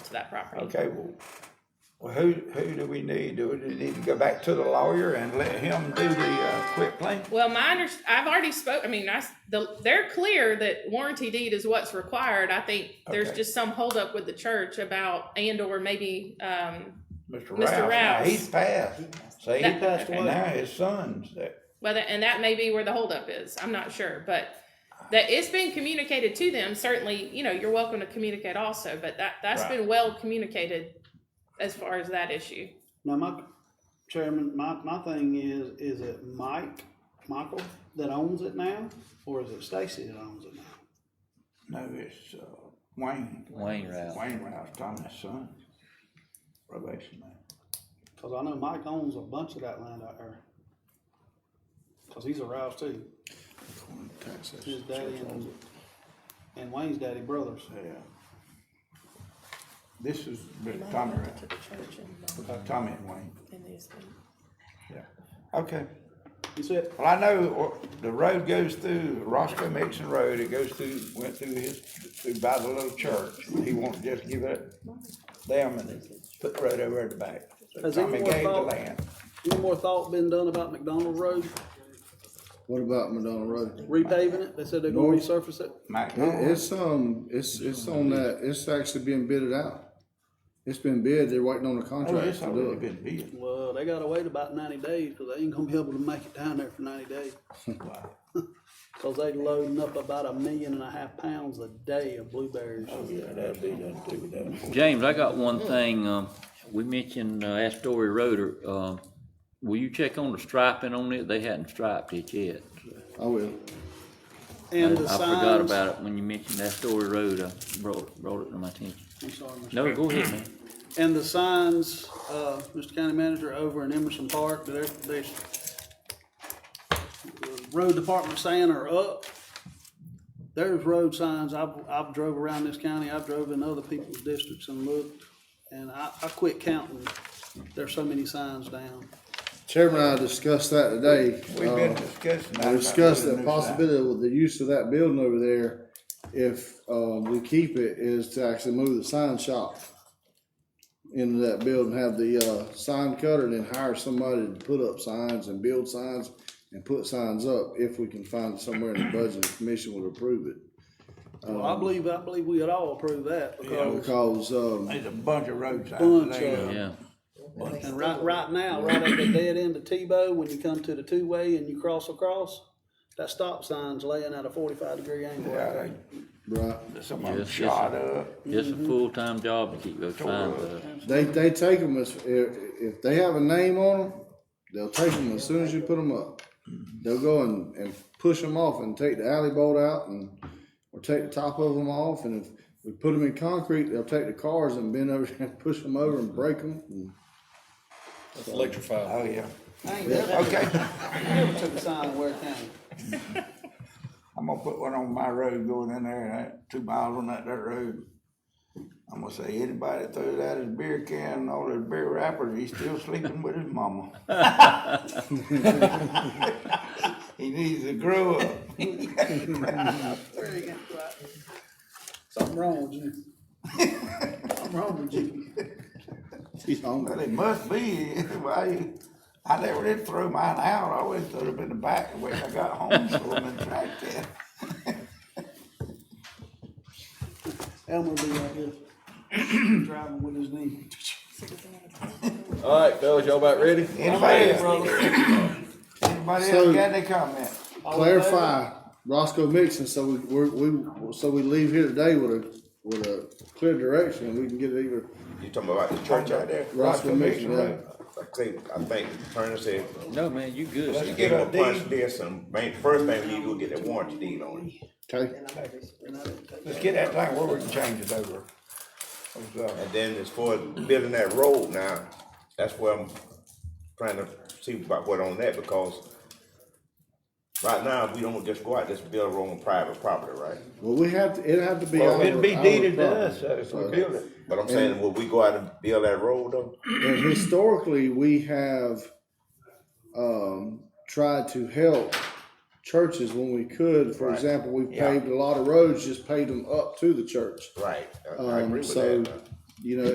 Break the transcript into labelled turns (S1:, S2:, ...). S1: to that property.
S2: Okay, well, well, who, who do we need? Do we need to go back to the lawyer and let him do the, uh, quit claim?
S1: Well, my under, I've already spoke, I mean, I, s- the, they're clear that warranty deed is what's required. I think there's
S2: Okay.
S1: just some holdup with the church about, and or maybe, um,
S2: Mr.
S1: Mr.
S2: Rouse, now
S1: Rouse.
S2: he's passed. See,
S1: That-
S2: and now his son's there.
S1: whether, and that may be where the holdup is. I'm not sure, but that it's been communicated to them. Certainly, you know, you're welcome to communicate also, but that, that's
S2: Right.
S1: been well communicated as far as that issue.
S3: Now, my chairman, my, my thing is, is it Mike, Michael that owns it now, or is it Stacy that owns it now?
S2: No, it's, uh, Wayne,
S4: Wayne Rouse.
S2: Wayne Rouse, Thomas' son. Relation man.
S3: Cause I know Mike owns a bunch of that land out there. Cause he's a Rouse too. His daddy and, and Wayne's daddy brothers.
S2: Yeah. This is really Tommy,
S1: To
S2: right?
S1: the church and,
S2: Uh, Tommy and Wayne,
S1: and these things.
S2: yeah. Okay.
S3: You see it?
S2: Well, I know uh, the road goes through Roscoe Mixon Road, it goes through, went through his, through by the little church. He wanted to just give it them and put the road over at the back. So
S3: Has anyone
S2: Tommy gave the
S3: thought-
S2: land.
S3: Any more thought been done about McDonald Road,
S5: What about Madonna Road?
S3: repaving it? They said they're gonna resurface it.
S2: Mike,
S5: It- It's, um, it's, it's on that, it's actually being bidded out. It's been bid, they're waiting on the
S2: oh,
S5: contract
S2: it's
S5: to do
S2: already
S5: it.
S2: been built.
S3: Well, they gotta wait about ninety days, cause they ain't gonna be able to make it down there for ninety days.
S2: Wow.
S3: Cause they loading up about a million and a half pounds a day of blueberries.
S2: Oh, yeah, that'll be done too, that.
S4: James, I got one thing, um, we mentioned uh, Astoria Road, uh, will you check on the striping on it? They hadn't striped it yet.
S5: I will.
S3: And the
S4: I forgot
S3: signs.
S4: about it when you mentioned Astoria Road, I brought, brought it to my attention.
S3: I'm sorry, Mr.
S4: No, go ahead, man.
S3: And the signs, uh, Mr. County Manager, over in Emerson Park, they're, they're, the road department saying are up. There's road signs, I've, I've drove around this county, I've drove in other people's districts and looked, and I, I quit counting. There's so many signs down.
S5: Chairman and I discussed that today.
S2: We've
S5: Uh,
S2: been discussing. that
S5: I
S2: about
S5: discussed
S2: doing
S5: the
S2: a new sign.
S5: possibility with the use of that building over there, if, uh, we keep it, is to actually move the sign shop into that building, have the, uh, sign cutter, and then hire somebody to put up signs and build signs and put signs up, if we can find somewhere in the budget, the commission would approve it.
S4: Um,
S3: Well, I believe, I believe we would all approve that because,
S5: Because, um,
S2: There's a bunch of road signs
S3: Bunch
S2: there.
S3: of-
S4: Yeah,
S3: and right, right now, right at the dead end of Tebow, when you come to the two-way and you cross across, that stop sign's laying at a forty-five degree angle.
S2: Yeah, they-
S5: right,
S2: Some of them
S4: Yes, yes,
S2: shot
S4: sir.
S2: up.
S4: it's
S3: Mm-hmm.
S4: a full-time job to keep those signs up.
S5: they, they take them as, if, if they have a name on them, they'll take them as soon as you put them up. They'll go and, and push them off and take the alley bolt out and, or take the top of them off, and if we put them in concrete, they'll take the cars and bend over and push them over and break them.
S6: Electrified.
S2: Oh, yeah.
S3: I ain't never
S2: Okay,
S3: took a sign in Ware County.
S2: I'm gonna put one on my road going in there, that two miles on that dirt road. I'm gonna say, anybody that throws out his beer can and all his beer wrappers, he's still sleeping with his mama. He needs to grow up.
S3: Something wrong with you. Something wrong with you.
S5: He's hungry.
S2: Well, it must be, why, I never did throw mine out, I always threw them in the back when I got home, so I'm in track then.
S3: Elmer be like this, driving with his knee.
S6: All right, fellas, y'all about ready?
S2: Anybody, else-
S3: brother.
S2: anybody
S5: So-
S2: else got any comment?
S5: clarify Roscoe Mixon, so we, we're, we, so we leave here today with a, with a clear direction, and we can get it either
S7: You talking about the church out there?
S5: Roscoe Mixon, right?
S7: I think, I think Turner said,
S4: No, man, you good.
S7: you give him a punch this and main, first thing we need to do is get that warranty deed on it.
S5: Okay,
S2: Let's get that thing where we can change it over. uh,
S7: And then as far as building that road now, that's where I'm trying to see about what on that because right now, we don't just go out, just build a road on private property, right?
S5: well, we have, to. it'd have to be.
S2: Well, it'd
S5: our-
S2: be
S5: our
S2: deeded to
S5: property.
S2: us, so if we build it.
S7: But I'm saying, will we go out and build that road though?
S5: And historically, we have, um, tried to help churches when we could. For
S7: Right.
S5: example, we
S2: Yeah.
S5: paved a lot of roads, just paved them up to the church.
S7: Right, I- I agree
S5: Um,
S7: with
S5: so
S7: that.
S5: You know,